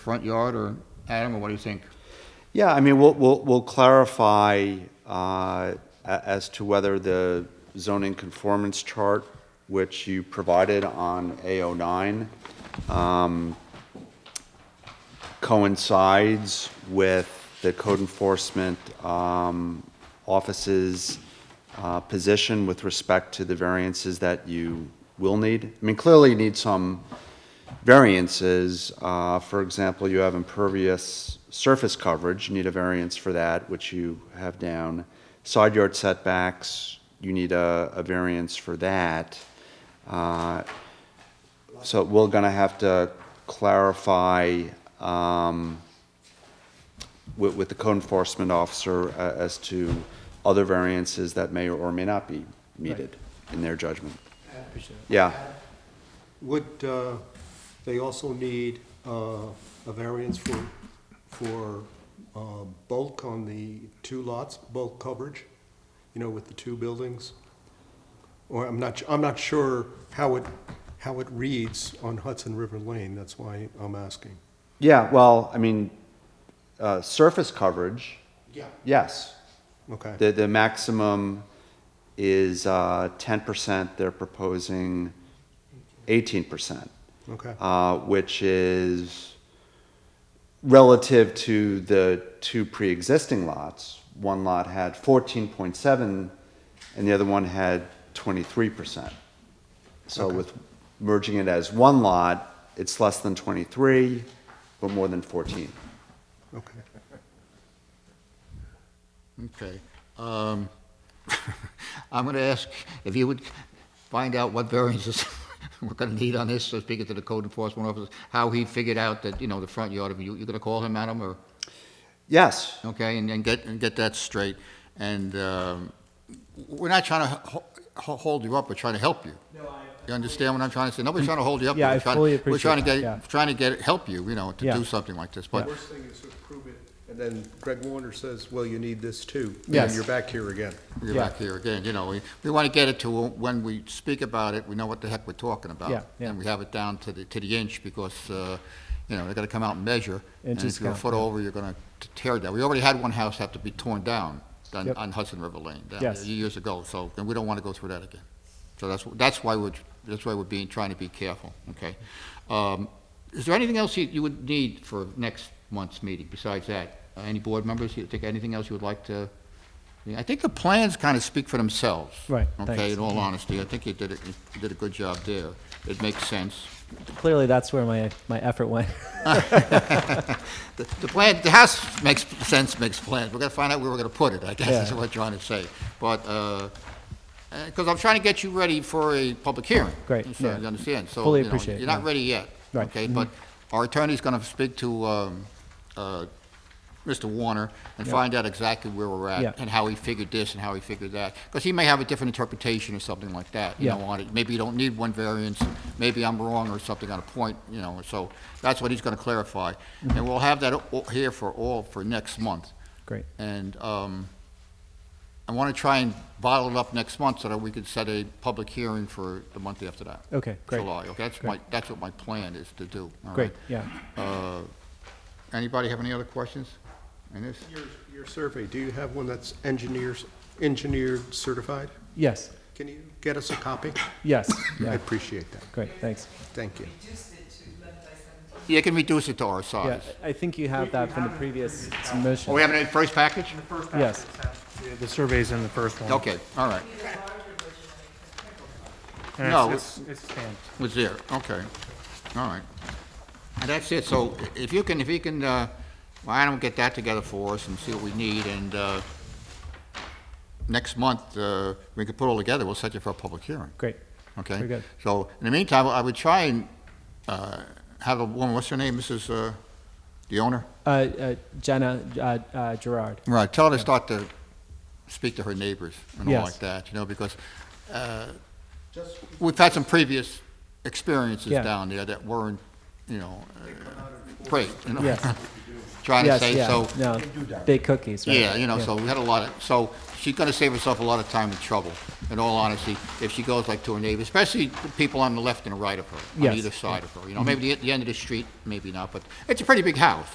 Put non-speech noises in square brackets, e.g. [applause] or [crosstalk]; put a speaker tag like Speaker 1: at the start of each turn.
Speaker 1: front yard, or Adam, or what do you think?
Speaker 2: Yeah, I mean, we'll, we'll, we'll clarify uh, a- as to whether the zoning conformance chart, which you provided on A09, um, coincides with the code enforcement um, office's uh, position with respect to the variances that you will need. I mean, clearly you need some variances. Uh, For example, you have impervious surface coverage, you need a variance for that, which you have down. Side yard setbacks, you need a, a variance for that. Uh, so we're going to have to clarify um, with, with the code enforcement officer a- as to other variances that may or may not be needed in their judgment. Yeah,
Speaker 3: Would uh, they also need uh, a variance for, for uh, bulk on the two lots, bulk coverage, you know, with the two buildings? Or I'm not, I'm not sure how it, how it reads on Hudson River Lane, that's why I'm asking.
Speaker 2: yeah, well, I mean, uh, surface coverage,
Speaker 3: Yeah.
Speaker 2: yes.
Speaker 3: Okay,
Speaker 2: The, the maximum is uh, 10%, they're proposing 18%.
Speaker 3: okay,
Speaker 2: uh, which is relative to the two pre-existing lots. One lot had 14.7, and the other one had 23%. So with merging it as one lot, it's less than 23, but more than 14.
Speaker 3: okay.
Speaker 1: Okay. um, [laughs] I'm going to ask if you would find out what variances [laughs] we're going to need on this, so speaking to the code enforcement officer, how he figured out that, you know, the front yard, you, you're going to call him, Adam, or?
Speaker 2: Yes,
Speaker 1: okay, and, and get, and get that straight. And um, we're not trying to ho- ho- hold you up, we're trying to help you. No, I. You understand what I'm trying to say? Nobody's trying to hold you up.
Speaker 4: Yeah,
Speaker 1: we're
Speaker 4: I
Speaker 1: trying-
Speaker 4: fully
Speaker 1: We're trying to
Speaker 4: appreciate
Speaker 1: get,
Speaker 4: that, yeah.
Speaker 1: trying to get, help you, you know, to
Speaker 4: Yeah.
Speaker 1: do something like this, but,
Speaker 3: Worst thing is to approve it, and then Greg Warner says, well, you need this too. And
Speaker 4: Yes.
Speaker 3: then you're back here again.
Speaker 1: you're
Speaker 4: Yeah.
Speaker 1: back here again, you know, we, we want to get it to when we speak about it, we know what the heck we're talking about.
Speaker 4: Yeah, yeah.
Speaker 1: And we have it down to the, to the inch because, uh, you know, they're gonna come out and measure. And
Speaker 4: Inches
Speaker 1: if you're a
Speaker 4: count,
Speaker 1: foot over, you're gonna t- tear it down. We already had one house have to be torn down on,
Speaker 4: Yep.
Speaker 1: on Hudson River Lane. down
Speaker 4: Yes.
Speaker 1: there Years ago, so, and we don't want to go through that again. So that's, that's why we're, that's why we're being, trying to be careful, okay? Um, Is there anything else you, you would need for next month's meeting besides that? Uh, Any board members, you think anything else you would like to? I think the plans kind of speak for themselves.
Speaker 4: Right,
Speaker 1: Okay,
Speaker 4: thanks.
Speaker 1: in all honesty, I think you did, it. you did a good job there. It makes sense.
Speaker 4: Clearly, that's where my, my
Speaker 1: [laughs]
Speaker 4: effort went.
Speaker 1: The the plan, the house makes sense, makes plans. We're gonna find out where we're gonna put it, I guess, is
Speaker 4: Yeah.
Speaker 1: what I'm trying to say. But, uh, because I'm trying to get you ready for a public hearing.
Speaker 4: Great,
Speaker 1: So
Speaker 4: yeah.
Speaker 1: you understand, so.
Speaker 4: Fully
Speaker 1: you know,
Speaker 4: appreciate it,
Speaker 1: You're not
Speaker 4: yeah.
Speaker 1: ready yet.
Speaker 4: Right, Mm-hmm.
Speaker 1: Okay, but our attorney's gonna speak to, um, uh, Mr. Warner and find out exactly where we're
Speaker 4: Yeah.
Speaker 1: at and how he figured this and how he figured that. Because he may have a different interpretation or something like that, you
Speaker 4: Yeah.
Speaker 1: know, on it. Maybe you don't need one variance, maybe I'm wrong or something on a point, you know, so that's what he's gonna clarify.
Speaker 4: Mm-hmm.
Speaker 1: And we'll have that o- here for all, for next month.
Speaker 4: Great.
Speaker 1: And, um, I wanna try and bottle it up next month so that we could set a public hearing for the month after that.
Speaker 4: Okay, great.
Speaker 1: July, okay, that's my, that's what my plan is to do. all right?
Speaker 4: Great, yeah.
Speaker 1: Uh, Anybody have any other questions on this?
Speaker 3: Your, your survey, do you have one that's engineers, engineered certified?
Speaker 4: Yes,
Speaker 3: Can you get us a copy?
Speaker 4: yes,
Speaker 3: I
Speaker 4: yeah.
Speaker 3: appreciate that.
Speaker 4: Great, thanks.
Speaker 3: Thank you.
Speaker 1: Yeah, you can reduce it to our
Speaker 4: Yeah,
Speaker 1: size.
Speaker 4: I think you have that from the previous
Speaker 1: Oh, we
Speaker 4: submission.
Speaker 1: have it in the first package?
Speaker 4: Yes,
Speaker 5: Yeah, The survey's in the first one.
Speaker 1: Okay, all right,
Speaker 5: And
Speaker 1: No,
Speaker 5: it's- It's it's stamped.
Speaker 1: was there, okay, all right. And that's it, so i- if you can, if you can, uh, well, Adam, will get that together for us and see what we need, and uh, next month, uh, we can put it all together, we'll set you for a public hearing,
Speaker 4: great.
Speaker 1: okay?
Speaker 4: Very good.
Speaker 1: So, in the meantime, I would try and uh, have a woman, what's her name, Mrs., uh, the owner?
Speaker 4: Uh, uh, Jenna uh, uh, Gerard,
Speaker 1: Right, tell her to start to speak to her neighbors and all
Speaker 4: Yes.
Speaker 1: like that, you know, because uh, we've had some previous experiences
Speaker 4: Yeah.
Speaker 1: down there that weren't, you know, uh, great. you know.
Speaker 4: Yes.
Speaker 1: [laughs] trying to
Speaker 4: Yes,
Speaker 1: say,
Speaker 4: yeah,
Speaker 1: so.
Speaker 4: no, big cookies, right?
Speaker 1: Yeah, you know, so we had a lot of, so she's gonna save herself a lot of time and trouble, in all honesty, if she goes like to her neighbor, especially the people on the left and the right of her, on
Speaker 4: Yes,
Speaker 1: either side of her, you know, maybe the, the end of the street, maybe not, but it's a pretty big house.